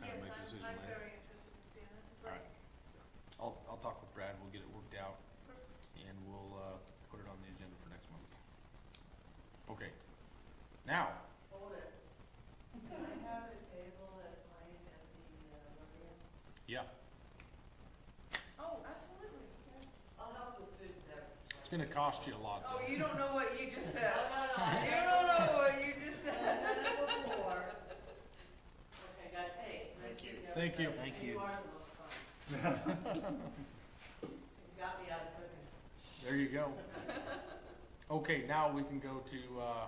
decision I'm later. very interested in seeing it. All right. I'll, I'll talk with Brad, we'll get it worked out, and we'll, uh, put it on the agenda for next month. Okay. Now, Hold it. Can I have a table at mine at the uh, Lorian? yeah, Oh, absolutely, yes. uh, I'll help with food and beverage. it's gonna cost you a lot Oh, though. you don't know what you just No, said. no, no. You I- don't know what you just said. I've done it before. Okay, guys, hey, nice Thank to you. meet Thank you. everybody. Thank You you. are the most fun. You got me out of cooking. There you go. Okay, now we can go to, uh,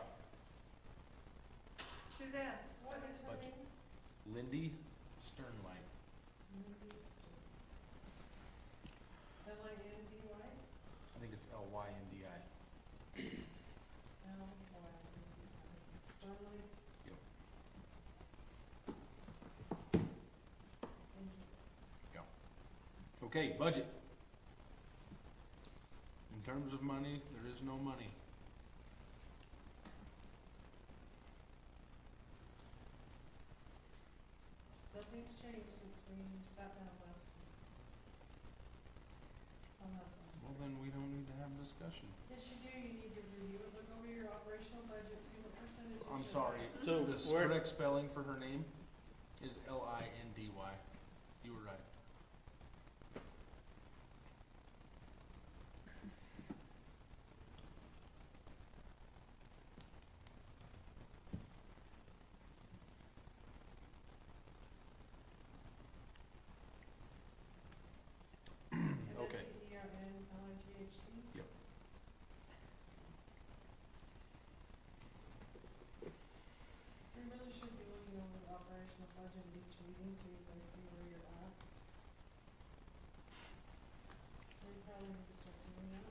Suzanne, what's his Budget. name? Lindy Sternlight. Am I in D right? I think it's L Y N D I. No, why, Sterling? Yep. Okay, budget. In terms of money, there is no money. Nothing's changed since we sat down last week. On that one. Well, then we don't need to have a discussion. Yes, you do, you need to review it, look over your operational budget, see what percentage you I'm should sorry, have. So the s- where- correct spelling for her name is L I N D Y. You were right. Okay. MSTERNLIGHT. We really should be looking over the operational budget at each meeting, so you guys see where you're at. So you probably need to start doing that.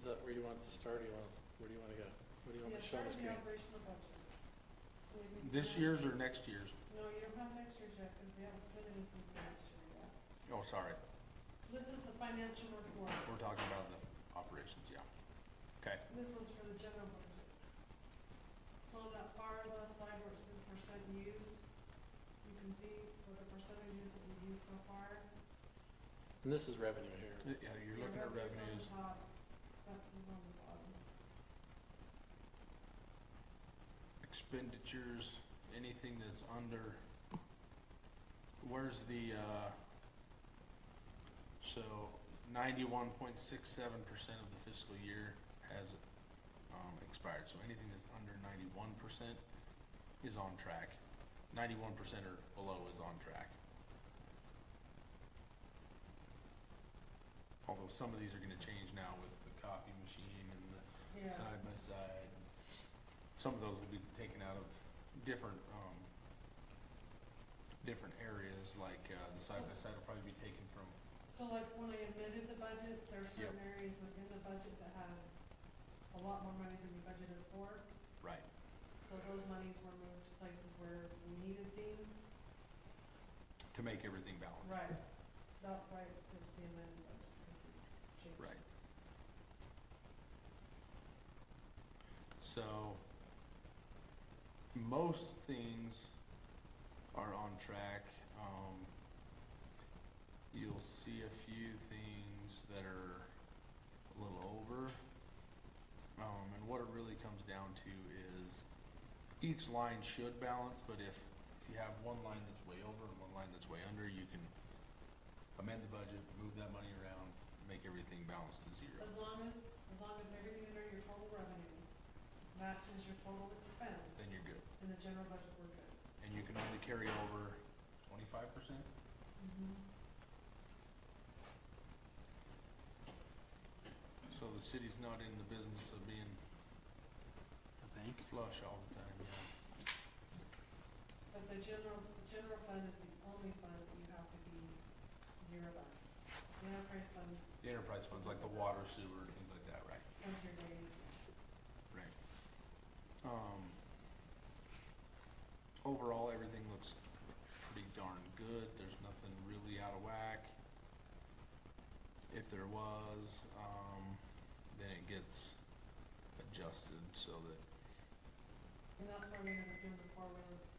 Is that where you want to start, or you want, us- where do you want to go? What do you want me Yeah, to show on start with the the screen? operational budget. So we can This see- year's or next year's? No, you don't have next year's yet, because we haven't spent anything for next year yet. Oh, sorry, So this is the financial report. we're talking about the operations, yeah. Okay, This one's for the general budget. So on that far left side where it says percent used, you can see what the percentages that we've used so far. And this is revenue here. yeah, you're looking at revenues. Revenues on top, expenses on the bottom. expenditures, anything that's under, where's the, uh, so ninety-one point six seven percent of the fiscal year has, um, expired, so anything that's under ninety-one percent is on track. Ninety-one percent or below is on track. Although some of these are gonna change now with the copy machine and the Yeah, side by side. Some of those will be taken out of different, um, different areas, like, uh, the side by side will probably be taken from, so like when I amended the budget, there are certain areas within the budget that had a lot more money than we budgeted for. right, So those monies were moved to places where we needed things. to make everything balanced. Right, that's why it's the amended budget, because we changed. Right. things. So, most things are on track. Um, you'll see a few things that are a little over. Um, and what it really comes down to is each line should balance, but if, if you have one line that's way over and one line that's way under, you can amend the budget, move that money around, make everything balance to zero. As long as, as long as everything under your total revenue matches your total expense Then you're good. in the general budget, we're good. and you can only carry over twenty-five percent? So the city's not in the business of being I think. flush all the time, yeah. But the general, the general fund is the only fund that you have to be zero balance. The enterprise fund is The enterprise funds, like the water, sewer, and things like that, right? your days. Right. Um, overall, everything looks pretty darn good, there's nothing really out of whack. If there was, um, then it gets adjusted so that And that's why we ended up doing the four-wheeler